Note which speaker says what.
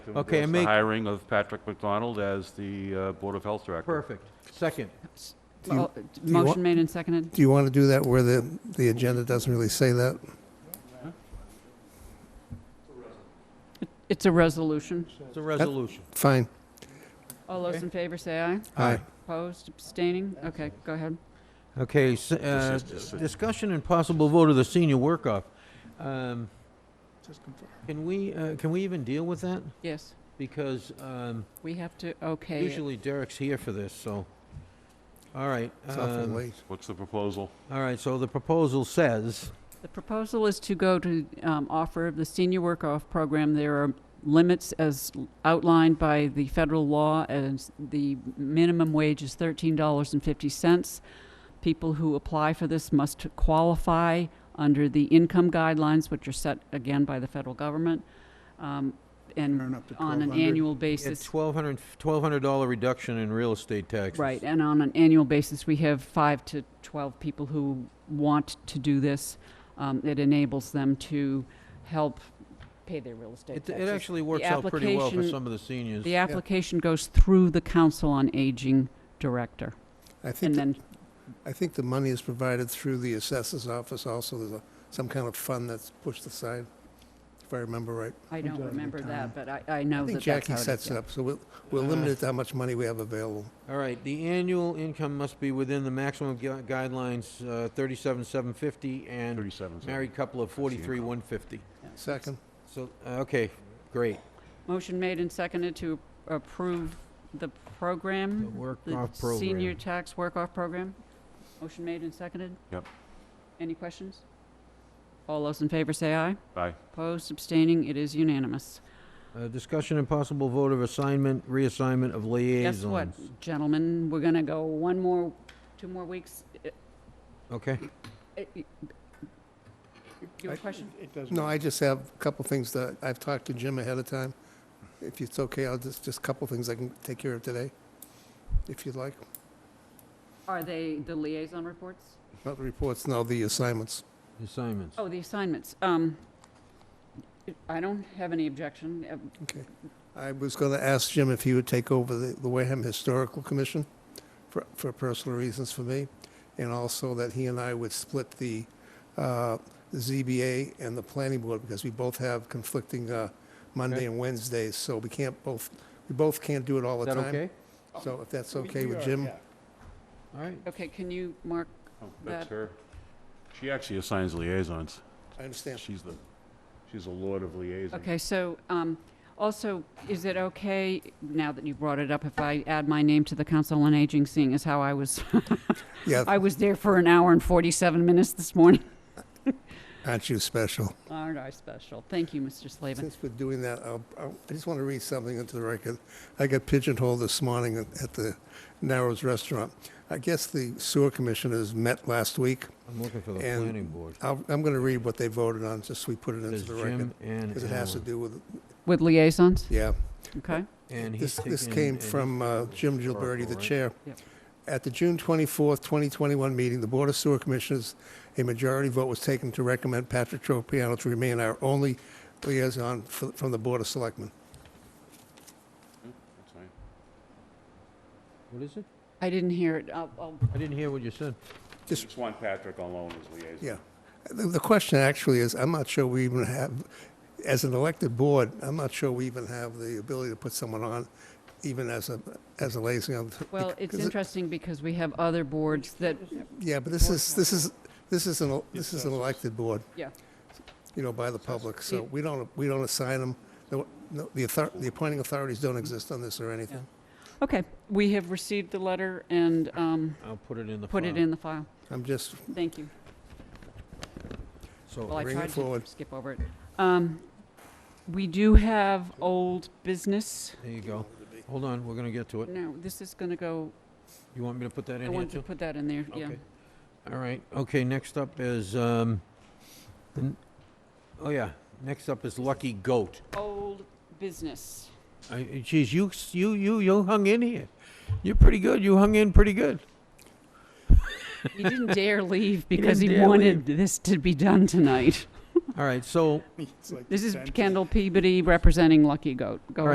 Speaker 1: Okay, I
Speaker 2: The
Speaker 1: make-
Speaker 2: Hiring of Patrick McDonald as the uh, Board of Health Director.
Speaker 1: Perfect. Second.
Speaker 3: Do you-
Speaker 4: Well,
Speaker 3: you want-
Speaker 4: Motion made and seconded.
Speaker 3: Do you want to do that where the, the agenda doesn't really say that?
Speaker 4: It's a resolution.
Speaker 1: It's a resolution.
Speaker 3: Fine.
Speaker 4: All those
Speaker 1: Okay.
Speaker 4: in favor say aye.
Speaker 3: Aye.
Speaker 4: Opposed, abstaining? Okay, go ahead.
Speaker 1: Okay, s- uh,
Speaker 2: This is just a-
Speaker 1: discussion and possible vote of the senior work-off. Um, Can we, uh, can we even deal with that?
Speaker 4: Yes,
Speaker 1: Because um,
Speaker 4: we have to, okay. it.
Speaker 1: usually Derek's here for this, so, all right.
Speaker 3: It's awful
Speaker 1: um,
Speaker 3: late.
Speaker 2: What's the proposal?
Speaker 1: All right, so the proposal says,
Speaker 4: The proposal is to go to um, offer of the senior work-off program. There are limits as outlined by the federal law, as the minimum wage is $13.50. People who apply for this must qualify under the income guidelines, which are set again by the federal government, um, and
Speaker 5: Turn up to
Speaker 4: on an
Speaker 5: 1,200.
Speaker 4: annual
Speaker 1: it's
Speaker 4: basis.
Speaker 1: $1,200 $1,200 reduction in real estate taxes.
Speaker 4: Right, and on an annual basis, we have five to 12 people who want to do this. Um, It enables them to help pay their real estate
Speaker 1: It it
Speaker 4: taxes.
Speaker 1: actually works out pretty well for
Speaker 4: application-
Speaker 1: some of the seniors.
Speaker 4: The application goes through the Council on Aging Director,
Speaker 3: I
Speaker 4: and
Speaker 3: think, th-
Speaker 4: then,
Speaker 3: I think the money is provided through the assessor's office also. There's a, some kind of fund that's pushed aside, if I remember right.
Speaker 4: I
Speaker 5: Majority
Speaker 4: don't
Speaker 5: of the
Speaker 4: remember that,
Speaker 5: time.
Speaker 4: but I I
Speaker 3: I
Speaker 4: know
Speaker 3: think
Speaker 4: that that's
Speaker 3: Jackie
Speaker 4: how it is.
Speaker 3: sets it
Speaker 4: yeah. Uh,
Speaker 3: up, so we'll, we'll limit it to how much money we have available.
Speaker 1: All right, the annual income must be within the maximum gu- guidelines, uh, 37,750, and
Speaker 2: 37.
Speaker 1: married couple of 43,150.
Speaker 3: Second?
Speaker 1: So, uh, okay, great.
Speaker 4: Motion made and seconded to approve the program.
Speaker 1: The
Speaker 4: The
Speaker 1: work-off
Speaker 4: senior
Speaker 1: program.
Speaker 4: tax work-off program? Motion made and seconded?
Speaker 2: Yep.
Speaker 4: Any questions? All those in favor say aye.
Speaker 2: Aye.
Speaker 4: Opposed, abstaining, it is unanimous.
Speaker 1: Uh, Discussion and possible vote of assignment, reassignment of liaisons.
Speaker 4: Guess what, gentlemen, we're gonna go one more, two more weeks. Uh,
Speaker 1: Okay,
Speaker 4: uh, You have a
Speaker 3: I-
Speaker 4: question?
Speaker 5: It doesn't.
Speaker 3: No, I just have a couple things that, I've talked to Jim ahead of time. If it's okay, I'll just, just a couple things I can take care of today, if you'd like.
Speaker 4: Are they the liaison reports?
Speaker 3: Not the reports, no, the assignments.
Speaker 1: assignments.
Speaker 4: Oh, the assignments. Um, I don't have any objection. Uh,
Speaker 3: I was going to ask Jim if he would take over the the Wareham Historical Commission for, for personal reasons for me, and also that he and I would split the uh, ZBA and the planning board, because we both have conflicting uh,
Speaker 1: Okay.
Speaker 3: Monday and Wednesdays, so we can't both, we both can't do it all
Speaker 1: Is
Speaker 3: the
Speaker 1: that
Speaker 3: time.
Speaker 1: okay?
Speaker 3: So if that's
Speaker 5: We-
Speaker 3: okay
Speaker 5: we
Speaker 3: with
Speaker 5: are,
Speaker 3: Jim?
Speaker 5: yeah.
Speaker 1: All right.
Speaker 4: Okay, can you, Mark,
Speaker 2: Oh, That's
Speaker 4: That-
Speaker 2: her. She actually assigns liaisons.
Speaker 3: I understand.
Speaker 2: She's the, she's the lord of liaisons.
Speaker 4: Okay, so, um, also, is it okay, now that you brought it up, if I add my name to the Council on Aging, seeing as how I was,
Speaker 3: Yeah,
Speaker 4: I was there for an hour and 47 minutes this morning?
Speaker 3: aren't you special?
Speaker 4: Aren't I special? Thank you, Mr. Slavin.
Speaker 3: Since we're doing that, I'll, I'll- I just want to read something into the record. I got pigeonholed this morning at at the Narrows Restaurant. I guess the sewer commissioners met last week.
Speaker 1: I'm looking for the
Speaker 3: And
Speaker 1: planning board.
Speaker 3: I'll- I'm going to read what they voted on, just so we put it into
Speaker 1: There's
Speaker 3: the record.
Speaker 1: Jim and
Speaker 3: Because it has to
Speaker 1: Alan.
Speaker 3: do with,
Speaker 4: With liaisons,
Speaker 3: yeah.
Speaker 4: okay?
Speaker 1: And he's
Speaker 3: This, this
Speaker 1: taking-
Speaker 3: came
Speaker 1: and he's-
Speaker 3: from uh, Jim Gilberti,
Speaker 1: historical,
Speaker 3: the
Speaker 1: right?
Speaker 3: chair.
Speaker 4: Yep.
Speaker 3: At the June 24th, 2021 meeting, the Board of Sewer Commissioners, a majority vote was taken to recommend Patrick Tropiano to remain our only liaison f- from the Board of Selectmen.
Speaker 2: That's fine.
Speaker 1: What is it?
Speaker 4: I didn't hear it. I'll, I'll,
Speaker 1: I didn't hear what you said.
Speaker 3: Just-
Speaker 2: Just want Patrick alone as liaison.
Speaker 3: Yeah. The, the question actually is, I'm not sure we even have, as an elected board, I'm not sure we even have the ability to put someone on, even as a, as a liaison.
Speaker 4: well, it's
Speaker 3: Because it-
Speaker 4: interesting because we have other boards that,
Speaker 3: Yeah, but this is, this is, this is an, this is an elected board.
Speaker 4: Yeah.
Speaker 3: You know, by the public, so
Speaker 4: Yeah.
Speaker 3: we don't, we don't assign them, no, no, the author, the appointing authorities don't exist on this or anything.
Speaker 4: okay, we have received the letter and, um,
Speaker 1: I'll put it in the
Speaker 4: put it
Speaker 1: file.
Speaker 4: in the file.
Speaker 3: I'm just,
Speaker 4: Thank you.
Speaker 1: So,
Speaker 4: Well, I
Speaker 3: Bring it
Speaker 4: tried to
Speaker 3: forward.
Speaker 4: skip over it. Um, we do have old business.
Speaker 1: there you go. Hold on, we're gonna get to it.
Speaker 4: No, this is gonna go,
Speaker 1: You want me to put that
Speaker 4: I
Speaker 1: in here
Speaker 4: wanted to
Speaker 1: too?
Speaker 4: put that in there, yeah.
Speaker 1: Okay. All right, okay, next up is, um, the n- oh yeah, next up is Lucky Goat.
Speaker 4: Old business.
Speaker 1: I- Geez, you, s- you, you, you hung in here. You're pretty good. You hung in pretty good.
Speaker 4: He didn't dare leave because
Speaker 1: didn't
Speaker 4: he
Speaker 1: dare
Speaker 4: wanted this to be done tonight.
Speaker 1: All right, so
Speaker 5: It's like
Speaker 4: This is
Speaker 5: 10 to-
Speaker 4: Kendall Peabody representing Lucky Goat. Go